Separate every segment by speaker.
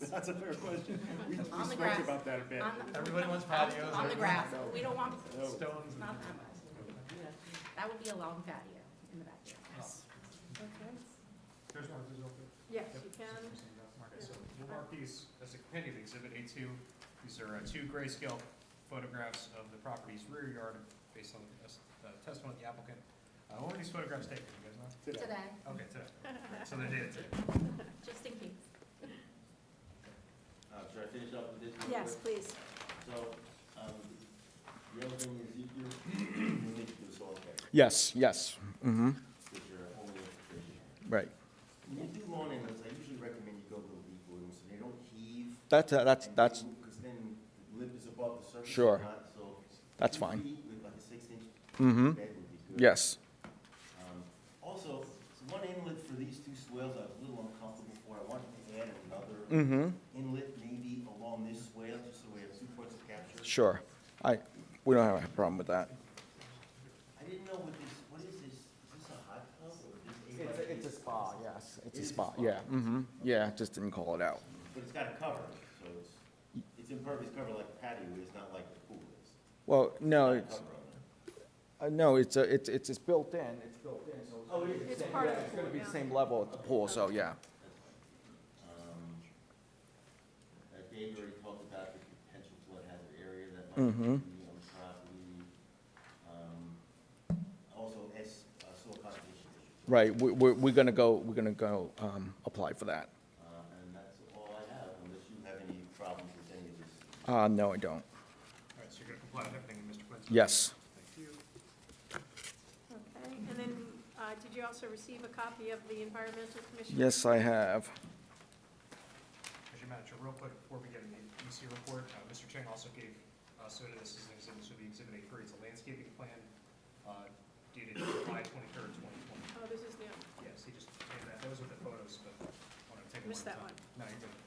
Speaker 1: That's a fair question. We we
Speaker 2: On the
Speaker 1: spoke
Speaker 2: grass.
Speaker 1: about that a bit.
Speaker 2: On the-
Speaker 3: Everybody wants patios,
Speaker 2: On the
Speaker 3: everybody-
Speaker 2: grass, we don't want
Speaker 1: No.
Speaker 3: Stones.
Speaker 2: Not that much. That would be a long patio in the backyard.
Speaker 4: Okay.
Speaker 3: Here's one, here's one.
Speaker 4: Yes,
Speaker 3: Yep.
Speaker 4: you can.
Speaker 3: Okay, so we'll mark these as a companion to exhibit A two. These are uh, two grayscale photographs of the property's rear yard based on the test- uh, testimony of the applicant. Uh, when were these photographs taken, you guys know?
Speaker 1: Today.
Speaker 2: Today,
Speaker 3: Okay, today. So they did it today.
Speaker 2: just in case.
Speaker 5: Uh, should I finish up with this? real
Speaker 4: Yes,
Speaker 5: quick?
Speaker 4: please.
Speaker 5: So, um, the other thing is you, you, you need to do soil testing,
Speaker 6: Yes, yes, Mm-hmm.
Speaker 5: which are only traditional.
Speaker 6: right.
Speaker 5: When you do lawn animals, I usually recommend you go to a leaf bloom, so they don't heave.
Speaker 6: That's, uh, that's, that's,
Speaker 5: Because then the lip is above the surface.
Speaker 6: Sure.
Speaker 5: or not, so
Speaker 6: That's
Speaker 5: two
Speaker 6: fine.
Speaker 5: feet With like a six inch
Speaker 6: hmm
Speaker 5: bed would be good.
Speaker 6: yes,
Speaker 5: Um, Also, one inlet for these two swales, I was a little uncomfortable for, I wanted to add another
Speaker 6: hmm
Speaker 5: inlet maybe along this swale, just so we have two points of capture.
Speaker 6: sure. I, we don't have a problem with that.
Speaker 5: I didn't know what this, what is this? Is this a hot tub or just a?
Speaker 6: spa, yes, it's
Speaker 5: It
Speaker 6: a
Speaker 5: is a
Speaker 6: spa,
Speaker 5: spa.
Speaker 6: yeah, hmm yeah, just didn't call it out.
Speaker 5: But it's got a cover, so it's, it's impervious cover like patio is, not like the pool is.
Speaker 6: Well, no,
Speaker 5: It's
Speaker 6: it's,
Speaker 5: got a cover on it.
Speaker 6: uh, no, it's, uh, it's, it's it's built in, it's built in, so.
Speaker 5: Oh, it
Speaker 4: It's part of
Speaker 6: It's
Speaker 4: the
Speaker 6: gonna
Speaker 4: pool,
Speaker 6: be the
Speaker 4: yeah.
Speaker 6: same level at the pool, so, yeah.
Speaker 5: Um, uh, Dave already talked about the potential flood hazard area that
Speaker 6: Mhm.
Speaker 5: might be on the property. Um, Also, S, uh, soil conservation issue.
Speaker 6: Right, we, we're, we're gonna go, we're gonna go, um, apply for that.
Speaker 5: Uh, and that's all I have, unless you have any problems with any of this.
Speaker 6: Uh, no, I don't.
Speaker 3: All right, so you're gonna comply with everything in Mr. Quinn's?
Speaker 6: Yes,
Speaker 3: Thank you.
Speaker 4: Okay, and then, uh, did you also receive a copy of the environmental commission?
Speaker 6: yes, I have.
Speaker 3: Mr. Manager, real quick, before we get into the EC report, uh, Mr. Chang also gave, uh, so this is an exhibit, should be exhibit A three, it's a landscaping plan, uh, dated July twenty-third, twenty twenty.
Speaker 4: Oh, this is new.
Speaker 3: Yes, he just gave that, those are the photos, but I wanted to take them
Speaker 4: Missed
Speaker 3: one at a
Speaker 4: that
Speaker 3: time. No, you didn't.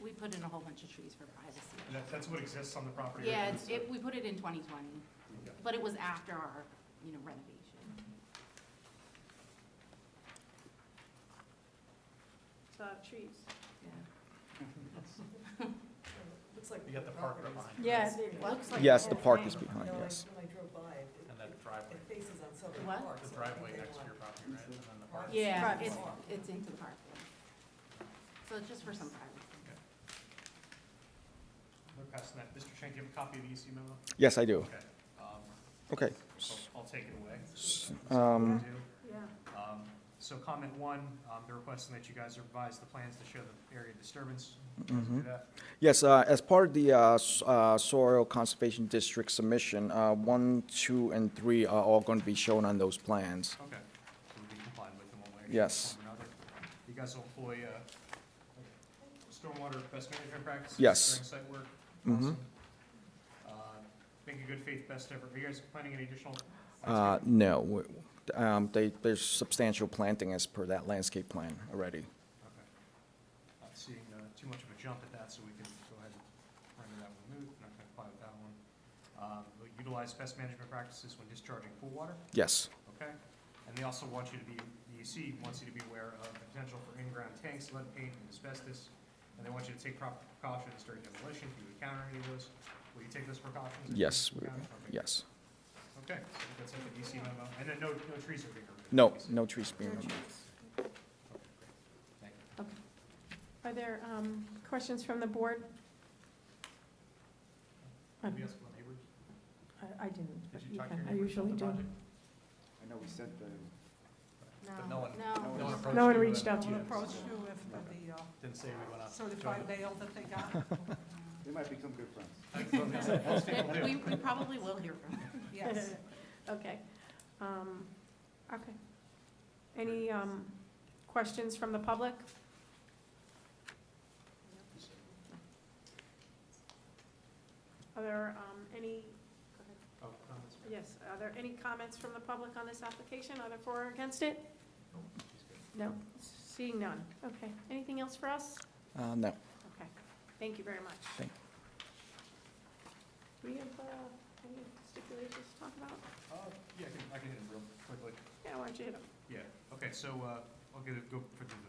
Speaker 2: We put in a whole bunch of trees for privacy.
Speaker 3: And that, that's what exists on the property. right
Speaker 2: Yeah,
Speaker 3: now,
Speaker 2: it's,
Speaker 3: so-
Speaker 2: it, we put it in twenty twenty,
Speaker 3: Yeah.
Speaker 2: but it was after our, you know, renovation.
Speaker 4: It's, uh, trees.
Speaker 2: Yeah.
Speaker 7: Looks like.
Speaker 3: You got the park right behind you.
Speaker 4: Yeah,
Speaker 7: It looks like
Speaker 6: Yes,
Speaker 7: whole
Speaker 6: the park is
Speaker 7: thing.
Speaker 6: behind,
Speaker 7: No, I-
Speaker 6: yes.
Speaker 7: When I drove by, it,
Speaker 3: And
Speaker 7: it-
Speaker 3: that driveway,
Speaker 7: it faces on Southern
Speaker 2: What?
Speaker 7: Park.
Speaker 3: the
Speaker 7: so I think
Speaker 3: driveway
Speaker 7: they
Speaker 3: next to your
Speaker 7: want-
Speaker 3: property, right, and then the park.
Speaker 7: Right.
Speaker 2: Yeah,
Speaker 7: Private
Speaker 2: it's,
Speaker 7: walk.
Speaker 2: it's into the park. So it's just for some privacy.
Speaker 3: We're passing that, Mr. Chang, do you have a copy of the EC memo?
Speaker 6: Yes, I do.
Speaker 3: Okay, um,
Speaker 6: Okay.
Speaker 3: so I'll take it away.
Speaker 6: Um,
Speaker 3: Do.
Speaker 4: yeah.
Speaker 3: Um, So comment one, um, they're requesting that you guys revise the plans to show the area disturbance. You guys do that?
Speaker 6: Yes, uh, as part of the uh, s- uh, Soil Conservation District submission, uh, one, two, and three are all going to be shown on those plans.
Speaker 3: Okay, so we'll be compliant with them one way. or
Speaker 6: Yes.
Speaker 3: another. You guys will employ, uh, stormwater best management practices?
Speaker 6: Yes.
Speaker 3: During site work?
Speaker 6: Mhm.
Speaker 3: Awesome. Uh, Make a good faith best effort. Are you guys planning any additional?
Speaker 6: Uh,
Speaker 3: landscaping?
Speaker 6: No, w- um, they- there's substantial planting as per that landscape plan already.
Speaker 3: Okay. Not seeing, uh, too much of a jump at that, so we can go ahead and render that one moot, not gonna apply with that one. Um, we'll utilize best management practices when discharging pool water.
Speaker 6: Yes,
Speaker 3: Okay? And they also want you to be, the EC wants you to be aware of the potential for in-ground tanks, lead paint, and asbestos. And they want you to take proper precautions during demolition, if you encounter any of those. Will you take those precautions? if you
Speaker 6: yes, we-
Speaker 3: encounter? Okay.
Speaker 6: yes.
Speaker 3: Okay, so I think that's E it, the EC memo. And then no, no trees are being removed?
Speaker 6: No,
Speaker 3: obviously.
Speaker 6: no trees being removed.
Speaker 3: Okay, great. Thank you.
Speaker 4: Are there, um, questions from the board? Um,
Speaker 3: Anybody else from the neighbors?
Speaker 7: I, I didn't.
Speaker 3: Did you
Speaker 7: you
Speaker 3: talk to
Speaker 7: can-
Speaker 3: your
Speaker 7: I
Speaker 3: neighbors
Speaker 7: usually
Speaker 3: about the
Speaker 7: do.
Speaker 3: project?
Speaker 1: I know we sent the,
Speaker 3: But no one-
Speaker 2: No.
Speaker 3: No one approached
Speaker 4: No one
Speaker 3: you, uh,
Speaker 4: reached out to
Speaker 3: yeah,
Speaker 4: you.
Speaker 7: Approach you with the, uh,
Speaker 3: Didn't say we went out.
Speaker 7: certified mail that they got,
Speaker 1: they might become good friends.
Speaker 3: Most people do.
Speaker 2: We, we probably will hear from them.
Speaker 7: yes.
Speaker 4: Okay, um, okay. Any, um, questions from the public? Are there, um, any, go ahead.
Speaker 3: Oh, comments?
Speaker 4: Yes, are there any comments from the public on this application, either for or against it?
Speaker 3: She's good.
Speaker 4: No, seeing none. Okay, anything else for us?
Speaker 6: Uh, No,
Speaker 4: Okay, thank you very much.
Speaker 6: Thank
Speaker 4: Do we have, uh, any stipulations to talk about?
Speaker 3: Oh, Uh, yeah, I can, I can hit it real quickly.
Speaker 4: Yeah, why don't you hit them?
Speaker 3: Yeah, okay, so, uh, I'll get it, go put it in the